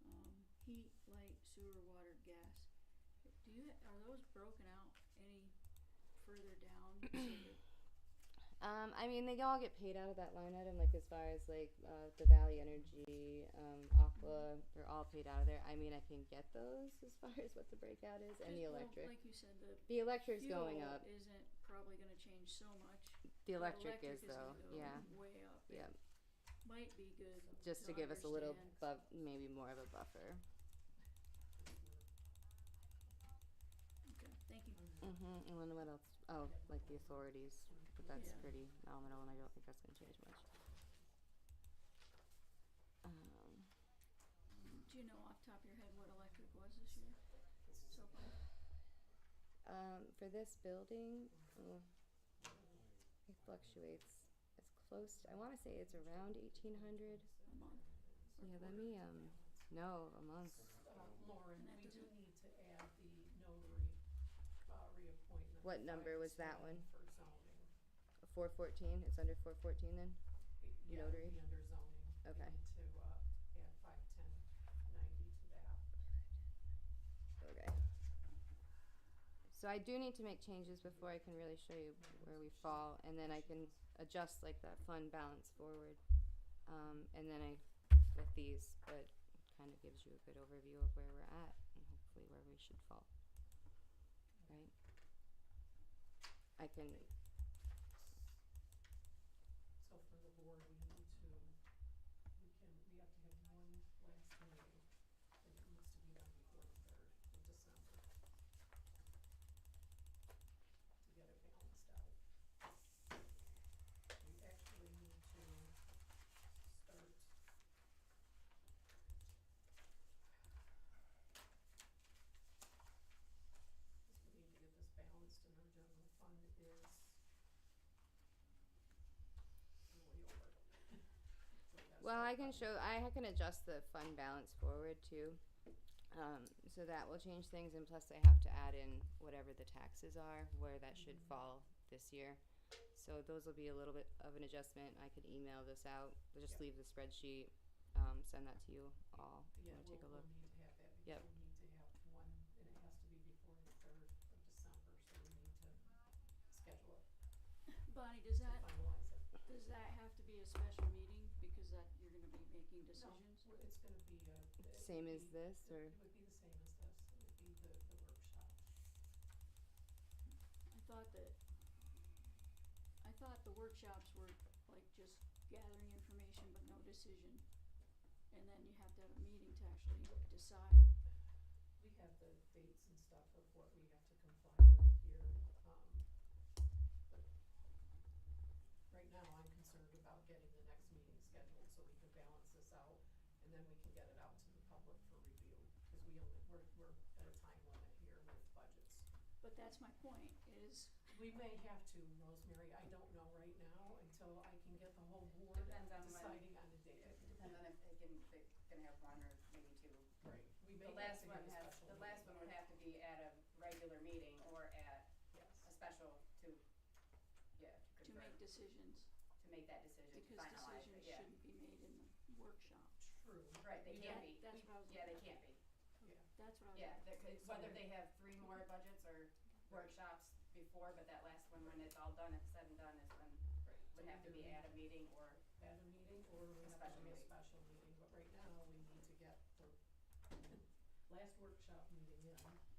Um, heat, light, sewer, water, gas. Do you, are those broken out any further down? So that- Um, I mean, they all get paid out of that line item, like as far as like uh, the Valley Energy, um, Aqua, they're all paid out of there. I mean, I can get those as far as what the breakout is, and the well, electric. Like you said, the the electric's fuel going up. isn't probably gonna change so much. The but electric, is though, gonna go yeah, Way up. It yeah. Might be good. Just to give us a little understand. buff, maybe more of a buffer. Okay, thank you. Mm-hmm. And then what else? Oh, like the authorities, but that's Yeah. pretty nominal, and I don't think that's going to change much. Um, Do you know off the top of your head what electric was this year? So far, Um, for this building, mm, it fluctuates. It's close. I want to say it's around eighteen hundred. a month. or Yeah, let quarter? me. Um, no, a month. Uh, Lauren, we do need to add the notary, uh, reappointment. What number was that 510 one? For zoning. Four fourteen. It's under four fourteen then. It- yeah, it'd Notary? be under zoning. We Okay. need to, uh, add five ten ninety to that. Okay. So I do need to make changes before I can really show you where we fall, and then I can adjust like that fund balance forward. Um, and then I, with these, but kind of gives you a good overview of where we're at and hopefully where we should fall. Right? I can, So for the board, we need to, we can, we have to have one last meeting, and it needs to be done before the third of December. To get it balanced out. We actually need to start. Because we need to get this balanced and our general fund is way over. So that's well, our I can problem. show, I can adjust the fund balance forward too. Um, so that will change things and plus I have to add in whatever the taxes are, where that should Mhm. fall this year. So those will be a little bit of an adjustment. I could email this out, just Yep. leave the spreadsheet, um, send that to you all. if you Yeah, wanna we'll, take a look. we'll need to have that Yep. because we need to have one, and it has to be before the third of December, so we need to schedule it Bonnie, does to that finalize it. Does that have to be a special meeting because that, you're gonna be making decisions? Well, It's gonna be uh, a. it Same would as be- this, it- or- It would be the same as this, it would be the, the workshop. I thought that, I thought the workshops were like just gathering information but no decision. And then you have to have a meeting to actually decide. We have the dates and stuff of what we have to comply with here, um, but right now, I'm concerned about getting the next meeting scheduled so we can balance this out, and then we can get it out to the public for review, because we only, we're, we're at a time limit here with budgets. But that's my point, is, We may have to, Rosemary, I don't know right now until I can get the whole board Depends on when. deciding on a date. It depends on if they can, they're gonna have one or maybe two. Right, we may The have last to one get a has, special the meeting. last one would have to be at a regular meeting or at a Yes, special to, yeah, to to confirm, make decisions, to make that decision, to because finalize it, decisions yeah. shouldn't be made in the workshop. true, Right, they You can't know, be, that's what I was yeah, they looking can't be, yeah. That's what I was. yeah, they're- it's whether they have three more budgets or workshops before, but that last one, when it's all done, it's said and done, is when, Right. would have to be at a meeting or, at a meeting or we have to do a Special meeting. special meeting, but right now we need to get the last workshop meeting in.